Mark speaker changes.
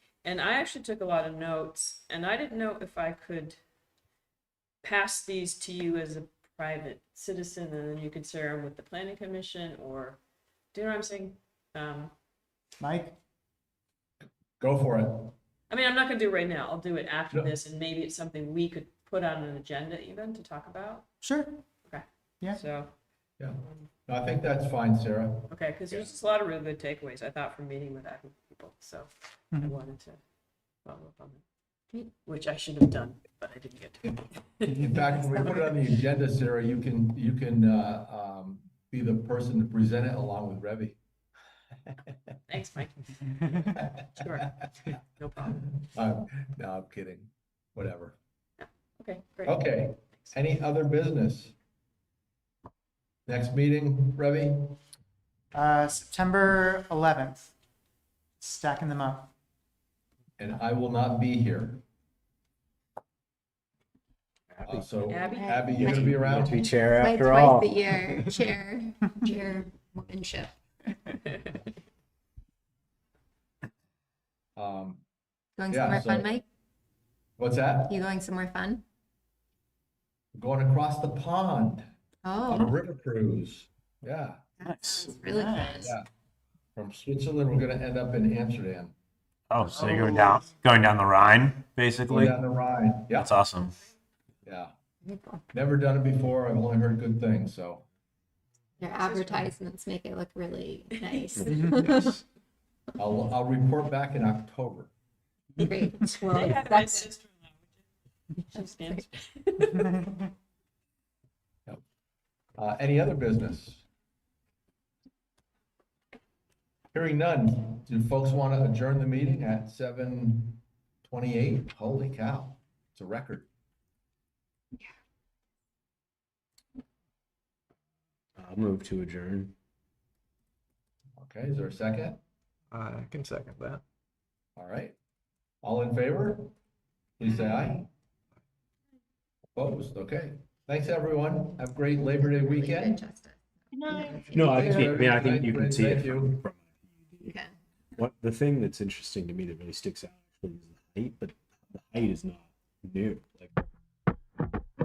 Speaker 1: And I actually took a lot of notes, and I didn't know if I could pass these to you as a private citizen, and then you could share them with the planning commission, or, do you know what I'm saying? Um,
Speaker 2: Mike?
Speaker 3: Go for it.
Speaker 1: I mean, I'm not gonna do it right now. I'll do it after
Speaker 3: No.
Speaker 1: this, and maybe it's something we could put on an agenda even to talk about.
Speaker 2: Sure. Yeah.
Speaker 1: So,
Speaker 3: Yeah, No, I think that's fine, Sarah.
Speaker 1: okay, because there's just a lot of really good takeaways, I thought, from meeting with Acme people, so I
Speaker 3: Mm-hmm.
Speaker 2: Mhm.
Speaker 1: wanted to follow up on that. Which I should have done, but I didn't get to.
Speaker 3: In fact, when we put it on the agenda, Sarah, you can, you can, uh, um, be the person to present it along with Revy.
Speaker 1: Thanks, Mike. Sure, no problem.
Speaker 3: Um, no, I'm kidding. Whatever.
Speaker 1: Okay, great.
Speaker 3: Okay, any other business? Next meeting, Revy?
Speaker 2: Uh, September eleventh. Stacking them up.
Speaker 3: And I will not be here. Uh, So
Speaker 1: Abby?
Speaker 3: Abby, you gonna be around?
Speaker 4: To be chair
Speaker 5: Play
Speaker 4: after
Speaker 5: twice
Speaker 4: all.
Speaker 5: the year, chair, chairwomanship.
Speaker 3: Um,
Speaker 5: Going
Speaker 3: Yeah,
Speaker 5: somewhere fun,
Speaker 3: so-
Speaker 5: Mike?
Speaker 3: what's that?
Speaker 5: You going somewhere fun?
Speaker 3: Going across the pond on a
Speaker 5: Oh,
Speaker 3: river cruise. Yeah,
Speaker 5: that sounds really fun.
Speaker 2: Nice.
Speaker 3: Um, Yeah. from Switzerland, we're gonna end up in Amsterdam,
Speaker 4: Oh, so you're going down, going down the Rhine,
Speaker 3: going
Speaker 4: basically.
Speaker 3: down the Rhine. Yeah,
Speaker 4: That's awesome.
Speaker 3: yeah.
Speaker 5: Very cool.
Speaker 3: Never done it before. I've only heard good things, so.
Speaker 5: Your advertisements make it look really nice.
Speaker 3: I'll, I'll report back in October.
Speaker 5: Great. Well,
Speaker 1: They had my
Speaker 5: that's-
Speaker 1: sister-in-law, which is- she's Spanish.
Speaker 3: Uh, any other business? Hearing none. Do folks want to adjourn the meeting at seven twenty-eight? Holy cow, it's a record.
Speaker 4: I'll move to adjourn.
Speaker 3: Okay, is there a second?
Speaker 6: I can second that.
Speaker 3: All right. All in favor? Please say aye. Opposed? Okay. Thanks, everyone. Have a great Labor Day
Speaker 5: really good
Speaker 3: weekend.
Speaker 5: justice.
Speaker 4: No, I
Speaker 3: Thanks,
Speaker 4: think, I mean, I think you can
Speaker 3: everybody.
Speaker 4: see it
Speaker 3: Thank you.
Speaker 4: from
Speaker 5: You can.
Speaker 7: What the thing that's interesting to me that really sticks out actually is the height, but the height is not new. Like